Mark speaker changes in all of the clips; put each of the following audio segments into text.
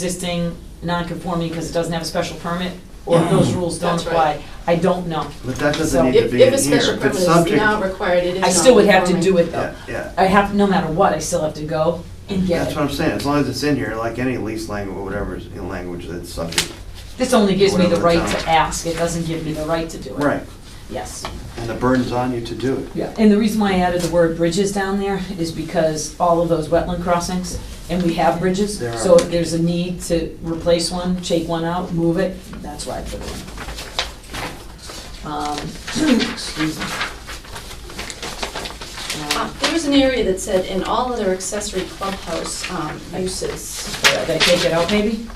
Speaker 1: pre-existing non-conforming because it doesn't have a special permit, or if
Speaker 2: Mm-hmm.
Speaker 1: those rules don't
Speaker 3: That's right.
Speaker 1: apply. I don't know.
Speaker 2: But that
Speaker 1: So-
Speaker 2: doesn't need to
Speaker 3: If,
Speaker 2: be
Speaker 3: if
Speaker 2: in here.
Speaker 3: a special
Speaker 2: If
Speaker 3: permit
Speaker 2: it's
Speaker 3: is
Speaker 2: subject-
Speaker 3: now required, it is
Speaker 1: I still would have to do
Speaker 3: non-conforming.
Speaker 1: it though.
Speaker 2: Yeah,
Speaker 1: I
Speaker 2: yeah.
Speaker 1: have, no matter what, I still have to go and get
Speaker 2: That's
Speaker 1: it.
Speaker 2: what I'm saying, as long as it's in here, like any lease language, whatever is in language that's subject.
Speaker 1: This only gives me the
Speaker 2: Whatever
Speaker 1: right
Speaker 2: town.
Speaker 1: to ask, it doesn't give me the right to do it.
Speaker 2: Right,
Speaker 1: Yes.
Speaker 2: and the burden's on you to do it.
Speaker 1: Yeah. And the reason why I added the word bridges down there is because all of those wetland crossings, and we have bridges,
Speaker 2: There are
Speaker 1: so if
Speaker 2: bridges.
Speaker 1: there's a need to replace one, take one out, move it, that's why I put it in. Um, Excuse me. Um,
Speaker 3: Uh, There was an area that said, in all other accessory clubhouse um, uses.
Speaker 1: Did I take it out, maybe?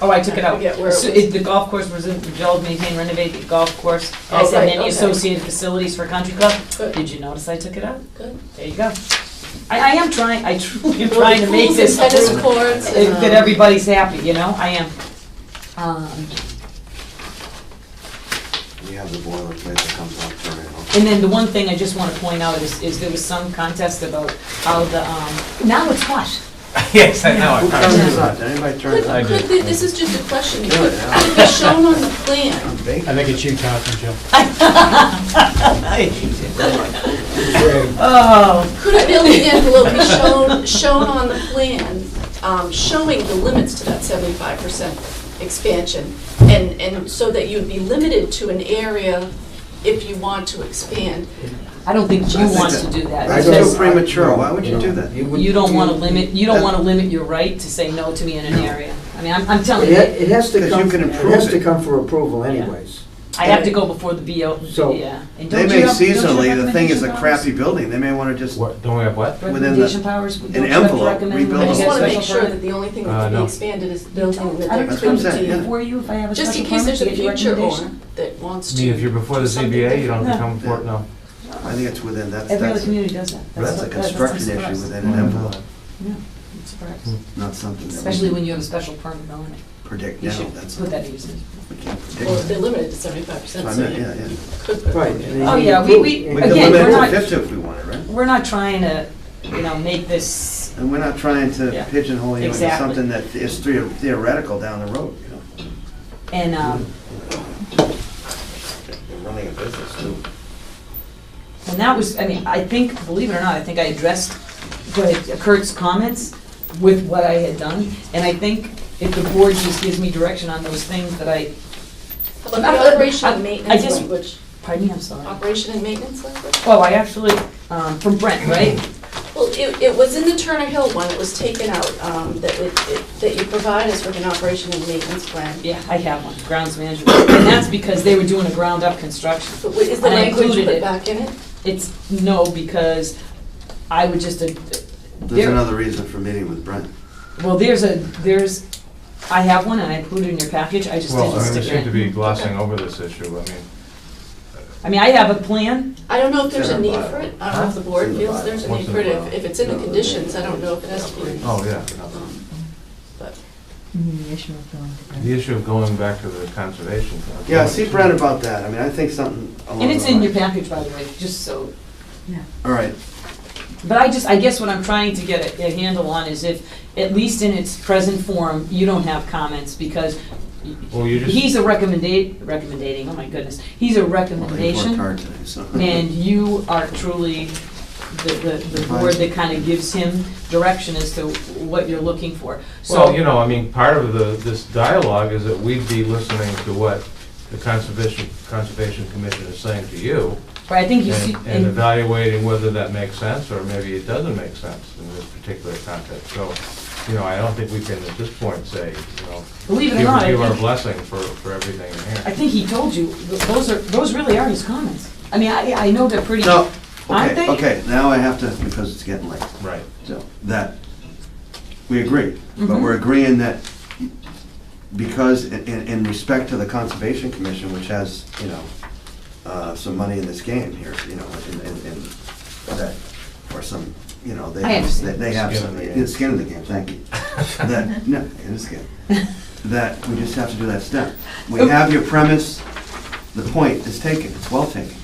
Speaker 1: Oh, I took it out.
Speaker 3: I forget where it
Speaker 1: So
Speaker 3: was.
Speaker 1: The golf course was in- developed, maintained, renovate the golf course. And I
Speaker 3: Oh,
Speaker 1: said
Speaker 3: right,
Speaker 1: many
Speaker 3: okay.
Speaker 1: associated facilities for country club.
Speaker 3: Good,
Speaker 1: Did you notice I took it out?
Speaker 3: good.
Speaker 1: There you go. I, I am trying, I truly am trying to make this,
Speaker 3: Pools and tennis
Speaker 1: that
Speaker 3: courts. and, um,
Speaker 1: everybody's happy, you know, I am. Um,
Speaker 2: You have the boilerplate that comes off for it.
Speaker 1: And then the one thing I just want to point out is, is there was some contest about how the, um, now it's what?
Speaker 4: Yes, I know.
Speaker 2: Who
Speaker 4: I
Speaker 2: turned this
Speaker 4: kinda-
Speaker 2: on? Did anybody turn it
Speaker 3: Could,
Speaker 4: I
Speaker 2: on?
Speaker 4: do.
Speaker 3: could, thi- this is just a question,
Speaker 2: Do
Speaker 3: could
Speaker 2: it now.
Speaker 3: could be shown on the plan,
Speaker 2: I'm baking.
Speaker 5: I think it's you, Catherine, Joe.
Speaker 1: Oh,
Speaker 3: could a building envelope be shown, shown on the plan, um, showing the limits to that seventy-five percent expansion? And, and so that you'd be limited to an area if you want to expand.
Speaker 1: I don't think
Speaker 2: I
Speaker 1: you
Speaker 2: think
Speaker 1: want
Speaker 2: that-
Speaker 1: to do that.
Speaker 2: That's
Speaker 1: because-
Speaker 2: too premature, why would you do that?
Speaker 1: You don't want to limit, you don't want to limit your right to say no to me in an area. I mean, I'm, I'm telling
Speaker 6: It ha-
Speaker 1: you,
Speaker 6: it has to
Speaker 2: Because you
Speaker 6: come,
Speaker 2: can
Speaker 6: it
Speaker 2: improve
Speaker 6: has to
Speaker 2: it.
Speaker 6: come for approval anyways.
Speaker 1: I have to go before the BO,
Speaker 6: So-
Speaker 1: yeah. And
Speaker 2: They
Speaker 1: don't
Speaker 2: may
Speaker 1: you have- don't you have
Speaker 2: seasonally, the thing is a
Speaker 1: recommendation
Speaker 2: crappy building, they may wanna just,
Speaker 4: What, don't we have what?
Speaker 1: powers?
Speaker 2: within the-
Speaker 1: Recommendation powers? Don't you have to
Speaker 2: envelope,
Speaker 1: recommend
Speaker 2: rebuild
Speaker 3: I
Speaker 1: when I
Speaker 3: just
Speaker 1: get a
Speaker 3: want to
Speaker 1: special
Speaker 3: make sure
Speaker 1: permit?
Speaker 3: that the only thing
Speaker 4: Uh,
Speaker 3: that could be
Speaker 4: no.
Speaker 3: expanded is the
Speaker 1: You
Speaker 3: building
Speaker 1: told- I
Speaker 3: that they're
Speaker 1: don't
Speaker 2: That's what I'm
Speaker 1: recommend
Speaker 3: between
Speaker 2: saying,
Speaker 1: it
Speaker 2: yeah.
Speaker 3: the,
Speaker 1: before you if I have a
Speaker 3: just in
Speaker 1: special
Speaker 3: case
Speaker 1: permit
Speaker 3: there's
Speaker 1: to
Speaker 3: a
Speaker 1: get your
Speaker 3: future owner
Speaker 1: recommendation.
Speaker 3: that wants
Speaker 4: I
Speaker 3: to.
Speaker 4: mean, if you're before the
Speaker 3: Something
Speaker 4: ZBA, you don't have to
Speaker 1: different.
Speaker 4: come for it, no.
Speaker 2: I think it's within, that's,
Speaker 1: Every other
Speaker 2: that's,
Speaker 1: community does that.
Speaker 2: that's a
Speaker 1: what-
Speaker 2: construction
Speaker 1: that's
Speaker 2: issue Mm.
Speaker 1: what's
Speaker 2: within an envelope,
Speaker 1: surprised.
Speaker 4: Hmm.
Speaker 2: not something that
Speaker 1: Especially
Speaker 2: we
Speaker 1: when you have a special permit on it.
Speaker 2: predict
Speaker 1: You
Speaker 2: now,
Speaker 1: should
Speaker 2: that's,
Speaker 1: put
Speaker 2: we
Speaker 1: that use in.
Speaker 2: can't predict.
Speaker 3: Well, they're
Speaker 2: that.
Speaker 3: limited to seventy-five
Speaker 2: So I
Speaker 3: percent, so
Speaker 2: meant, yeah,
Speaker 3: you
Speaker 2: yeah.
Speaker 3: could.
Speaker 6: Right. and
Speaker 1: Oh,
Speaker 6: they
Speaker 1: yeah, we-
Speaker 6: improve-
Speaker 1: we-
Speaker 6: and
Speaker 2: We
Speaker 6: they
Speaker 2: could
Speaker 1: Again, we're
Speaker 2: limit it
Speaker 1: not-
Speaker 2: to fifty if we wanted, right?
Speaker 1: We're not trying to, you know, make this,
Speaker 2: And we're not trying
Speaker 1: Yeah.
Speaker 2: to pigeonhole you into
Speaker 1: Exactly.
Speaker 2: something that is theo- theoretical down the road, you know?
Speaker 1: and, um,
Speaker 2: They're running a business too. Mm.
Speaker 1: And that was, I mean, I think, believe it or not, I think I addressed what- Kurt's comments with what I had done. And I think if the board just gives me direction on those things that I,
Speaker 3: How about the operation and
Speaker 1: I
Speaker 3: maintenance
Speaker 1: just-
Speaker 3: language?
Speaker 1: pardon me, I'm sorry.
Speaker 3: Operation and maintenance language?
Speaker 1: Oh, I actually, um, from Brent, right?
Speaker 3: Well, it, it was in the Turner Hill one, it was taken out, um, that it, it- that you provide us with an operation and maintenance plan.
Speaker 1: Yeah, I have one, grounds management. And that's because they were doing a ground-up construction.
Speaker 3: But what- is the
Speaker 1: And I
Speaker 3: language
Speaker 1: included
Speaker 3: put
Speaker 1: it.
Speaker 3: back in it?
Speaker 1: It's, no, because I would just, uh,
Speaker 2: There's
Speaker 1: there-
Speaker 2: another reason for meeting with Brent.
Speaker 1: well, there's a, there's, I have one and I included it in your package, I just
Speaker 4: Well,
Speaker 1: didn't
Speaker 4: I mean, we
Speaker 1: stick
Speaker 4: seem
Speaker 1: it
Speaker 4: to
Speaker 1: in.
Speaker 4: be glossing over this issue, I mean,
Speaker 1: I mean, I have a plan,
Speaker 3: I don't know if there's a
Speaker 2: It's in our
Speaker 3: need for it, I don't know
Speaker 4: Huh?
Speaker 3: if the board
Speaker 2: It's in the
Speaker 3: feels there's a
Speaker 4: What's
Speaker 3: need
Speaker 4: in
Speaker 3: for it,
Speaker 4: the
Speaker 3: if,
Speaker 4: bylaw?
Speaker 3: if it's in the
Speaker 2: No, they-
Speaker 3: conditions, I don't know if it has to be.
Speaker 4: oh, yeah.
Speaker 3: Um, But,
Speaker 4: The issue of going back to the conservation. uh,
Speaker 2: Yeah, see Brent about that, I mean, I think something along
Speaker 1: And it's
Speaker 2: the
Speaker 1: in your
Speaker 2: lines.
Speaker 1: package, by the way, just so,
Speaker 2: All right,
Speaker 1: but I just, I guess what I'm trying to get a, a handle on is if, at least in its present form, you don't have comments, because
Speaker 4: Well, you just,
Speaker 1: he's a recommendate, recommendating, oh my goodness, he's a
Speaker 2: well, they worked
Speaker 1: recommendation,
Speaker 2: hard today, so.
Speaker 1: and you are truly the, the, the board that kind of gives him direction as to what you're looking for.
Speaker 4: well, you
Speaker 1: So,
Speaker 4: know, I mean, part of the, this dialogue is that we'd be listening to what the Conservation, Conservation Commission is saying to you
Speaker 1: but I think you see,
Speaker 4: and and
Speaker 1: and-
Speaker 4: evaluating whether that makes sense or maybe it doesn't make sense in this particular context. So, you know, I don't think we can at this point say, you know,
Speaker 1: believe
Speaker 4: give
Speaker 1: it or not, I
Speaker 4: give our
Speaker 1: think,
Speaker 4: blessing for, for everything in here.
Speaker 1: I think he told you, th- those are, those really are his comments. I mean, I, I know they're pretty,
Speaker 2: So,
Speaker 1: Aren't they?
Speaker 2: okay, okay, now I have to, because it's getting late,
Speaker 4: Right.
Speaker 2: so, that, we agree, but
Speaker 1: Mhm.
Speaker 2: we're agreeing that because in, in in respect to the Conservation Commission, which has, you know, uh, some money in this game here, you know, and, and, and that, or some, you know, they
Speaker 1: I
Speaker 2: have,
Speaker 1: understand.
Speaker 2: they have
Speaker 4: Skin
Speaker 2: some,
Speaker 4: in the
Speaker 2: yeah,
Speaker 4: game.
Speaker 2: skin in the game, thank you. That, no, it is skin. That we just have to do that step. We have your premise, the point is taken, it's well taken,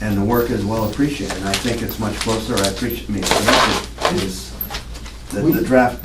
Speaker 2: and the work is well appreciated, and I think it's much closer, I appreciate, I mean, the method is the the draft